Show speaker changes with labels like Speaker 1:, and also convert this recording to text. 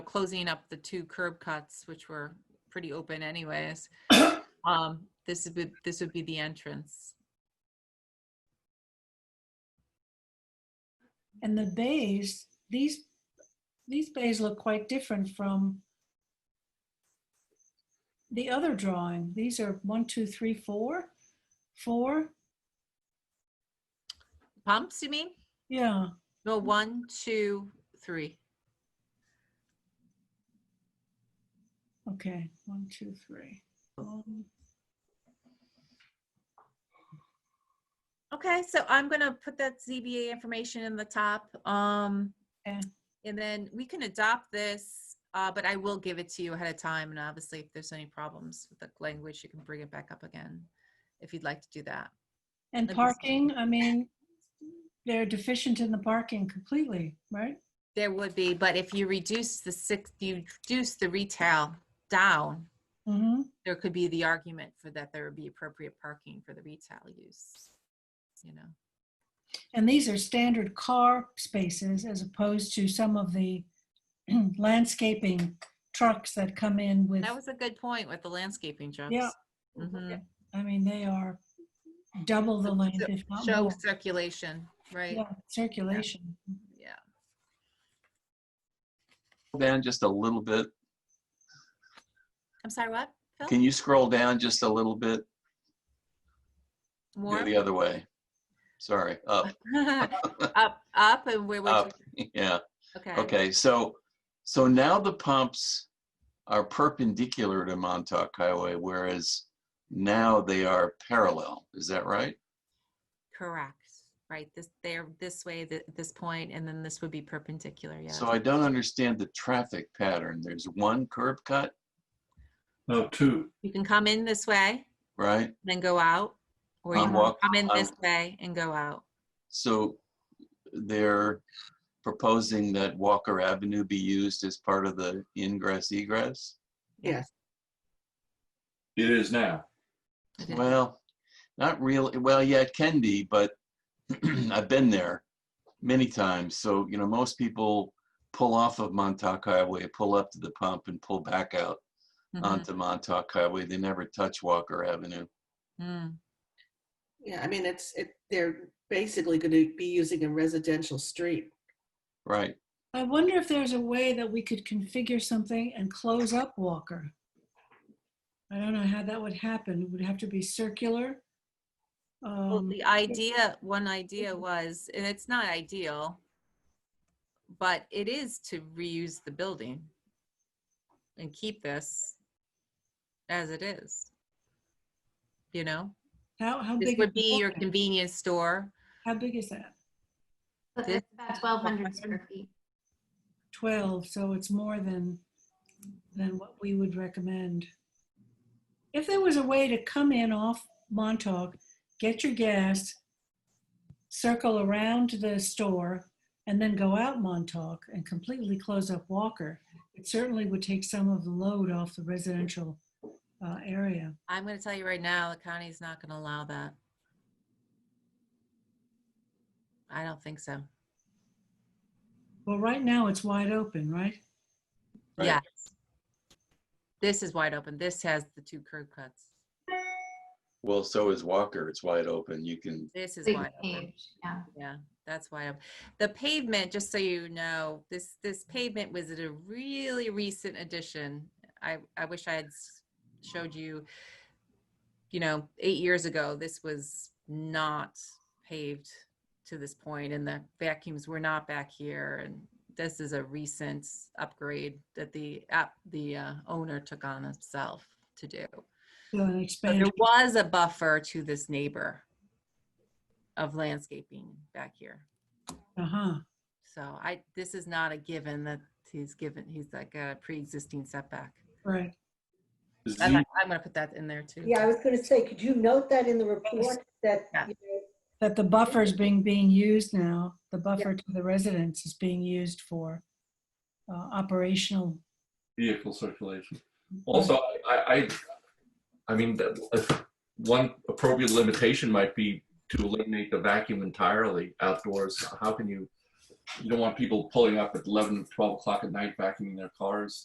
Speaker 1: closing up the two curb cuts, which were pretty open anyways. Um, this would, be- this would be the entrance.
Speaker 2: And the bays, these, these bays look quite different from the other drawing. These are one, two, three, four, four,
Speaker 1: Pumps, you mean?
Speaker 2: yeah.
Speaker 1: No, one, two, three.
Speaker 2: Okay, one, two, three. Um,
Speaker 1: Okay, so I'm gonna put that ZBA information in the top. Um,
Speaker 2: Okay.
Speaker 1: and then we can adopt this, uh, but I will give it to you ahead of time. And obviously, if there's any problems with the language, you can bring it back up again if you'd like to do that.
Speaker 2: And
Speaker 1: Let me see.
Speaker 2: parking, I mean, they're deficient in the parking completely, right?
Speaker 1: There would be, but if you reduce the six, you reduce the retail down,
Speaker 2: Mm-hmm,
Speaker 1: there could be the argument for that there would be appropriate parking for the retail use. You know,
Speaker 2: and these are standard car spaces as opposed to some of the landscaping trucks that come in with,
Speaker 1: that was a good point with the landscaping jobs.
Speaker 2: Yeah.
Speaker 1: Mhm.
Speaker 2: Mm-hmm. I mean, they are double the length, if not
Speaker 1: Show
Speaker 2: more.
Speaker 1: circulation, right?
Speaker 2: Yeah, Circulation.
Speaker 1: Yeah.
Speaker 3: down just a little bit?
Speaker 1: I'm sorry, what? Phil?
Speaker 3: Can you scroll down just a little bit?
Speaker 1: More?
Speaker 3: Go the other way. Sorry, up,
Speaker 1: Up, up and where was
Speaker 3: up. Yeah,
Speaker 1: Okay,
Speaker 3: okay. So, so now the pumps are perpendicular to Montauk Highway, whereas now they are parallel. Is that right?
Speaker 1: correct. Right, this, they're this way, th- this point, and then this would be perpendicular, yeah.
Speaker 3: So I don't understand the traffic pattern. There's one curb cut,
Speaker 4: No, two.
Speaker 1: You can come in this way,
Speaker 3: right?
Speaker 1: then go out, or you
Speaker 3: I'm
Speaker 1: can
Speaker 3: walk-
Speaker 1: come in
Speaker 3: I'm-
Speaker 1: this way and go out.
Speaker 3: So they're proposing that Walker Avenue be used as part of the ingress egress?
Speaker 1: Yes.
Speaker 4: It is now.
Speaker 1: Okay.
Speaker 3: Well, uh, not really. Well, yeah, it can be, but I've been there many times. So, you know, most people pull off of Montauk Highway, pull up to the pump, and pull back out
Speaker 1: Mhm.
Speaker 3: onto Montauk Highway. They never touch Walker Avenue.
Speaker 1: Mm.
Speaker 5: Yeah, I mean, it's, it, they're basically going to be using a residential street.
Speaker 3: Right.
Speaker 2: I wonder if there's a way that we could configure something and close up Walker. I don't know how that would happen. It would have to be circular.
Speaker 1: Well,
Speaker 2: Um,
Speaker 1: the idea, one idea
Speaker 6: Mm-hmm.
Speaker 1: was, and it's not ideal, but it is to reuse the building and keep this as it is. You know?
Speaker 2: How, how
Speaker 1: This
Speaker 2: big?
Speaker 1: would
Speaker 2: is
Speaker 1: be your
Speaker 2: Walker?
Speaker 1: convenience store.
Speaker 2: How big is that?
Speaker 6: But
Speaker 1: This-
Speaker 6: that's about twelve hundred square feet.
Speaker 2: 12, so it's more than, than what we would recommend. If there was a way to come in off Montauk, get your gas, circle around the store, and then go out Montauk and completely close up Walker, it certainly would take some of the load off the residential uh, area.
Speaker 1: I'm going to tell you right now, the county's not going to allow that. I don't think so.
Speaker 2: Well, right now, it's wide open, right?
Speaker 3: Right.
Speaker 1: Yes. This is wide open. This has the two curb cuts.
Speaker 3: Well, so is Walker. It's wide open. You can.
Speaker 1: This is
Speaker 6: Big
Speaker 1: wide open.
Speaker 6: change, Yeah,
Speaker 1: Yeah, that's wide open. The pavement, just so you know, this, this pavement was at a really recent addition. I, I wish I had s- showed you, you know, eight years ago, this was not paved to this point and the vacuums were not back here. And this is a recent upgrade that the app, the uh, owner took on himself to do.
Speaker 2: So an
Speaker 1: So
Speaker 2: expansion.
Speaker 1: there was a buffer to this neighbor of landscaping back here.
Speaker 2: Uh-huh.
Speaker 1: So I, this is not a given that he's given, he's like a pre-existing setback.
Speaker 2: Right.
Speaker 1: I'm,
Speaker 4: Z-
Speaker 1: not- I'm gonna put that in there too.
Speaker 7: Yeah, I was going to say, could you note that in the report that,
Speaker 1: Yeah.
Speaker 7: you know,
Speaker 2: that the buffer is being, being used now, the buffer to the residents is being used for uh, operational.
Speaker 4: Vehicle circulation.
Speaker 2: Hmm.
Speaker 4: Also, I, I, I mean, that, if one appropriate limitation might be to eliminate the vacuum entirely outdoors. How can you you don't want people pulling up at 11, 12 o'clock at night vacuuming their cars.